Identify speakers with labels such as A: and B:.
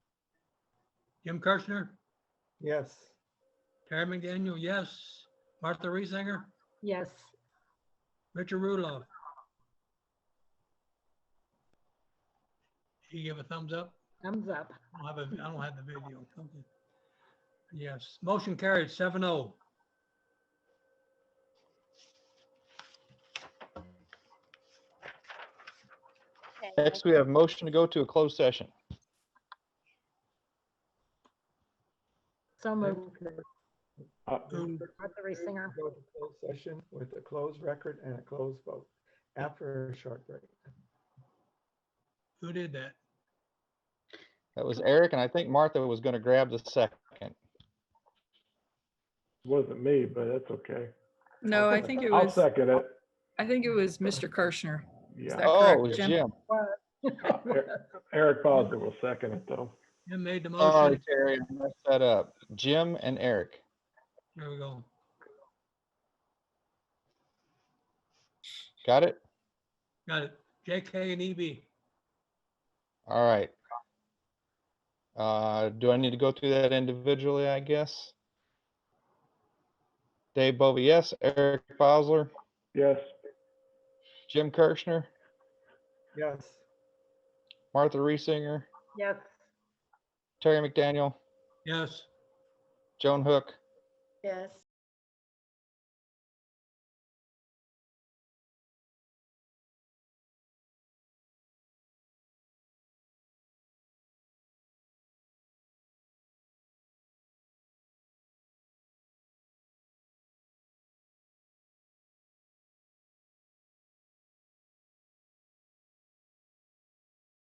A: Jim Kirschner,
B: Yes.
A: Terry McDaniel, yes. Martha Reesinger,
C: Yes.
A: Richard Rudolph. He gave a thumbs up.
C: Thumbs up.
A: I don't have, a- I don't have the video. Okay. Yes, motion carried, seven oh.
C: Okay.
D: Next, we have motion to go to a closed session.
C: So
B: Move
C: moved.
B: uh,
A: Boom.
B: move
C: Martha Reesinger.
B: to Go to closed session with a closed record and a closed vote after a short break.
A: Who did that?
D: That was Eric, and I think Martha was going to grab the second.
E: Wasn't me, but that's okay.
F: No,
E: I'll
F: I
E: second-
F: think it
E: I'll
F: was,
E: second it.
F: I think it was Mr. Kirschner.
E: Yeah.
F: that
D: Oh, it
F: correct,
D: was
F: Jim?
D: Jim.
E: Er- Eric Bosler will second it though.
A: Jim made the
D: Sorry,
A: motion.
D: Terry, I messed that up. Jim and Eric.
A: There we go.
D: Got it?
A: Got it. JK and E EB.
D: All right. Uh, do I need to go through that individually, I guess? Dave Bovee, yes. Eric Bosler,
E: Yes,
D: Jim Kirschner,
B: Yes.
D: Martha Reesinger,
C: Yes.
D: Terry McDaniel,
A: Yes.
D: Joan Hook,
C: Yes.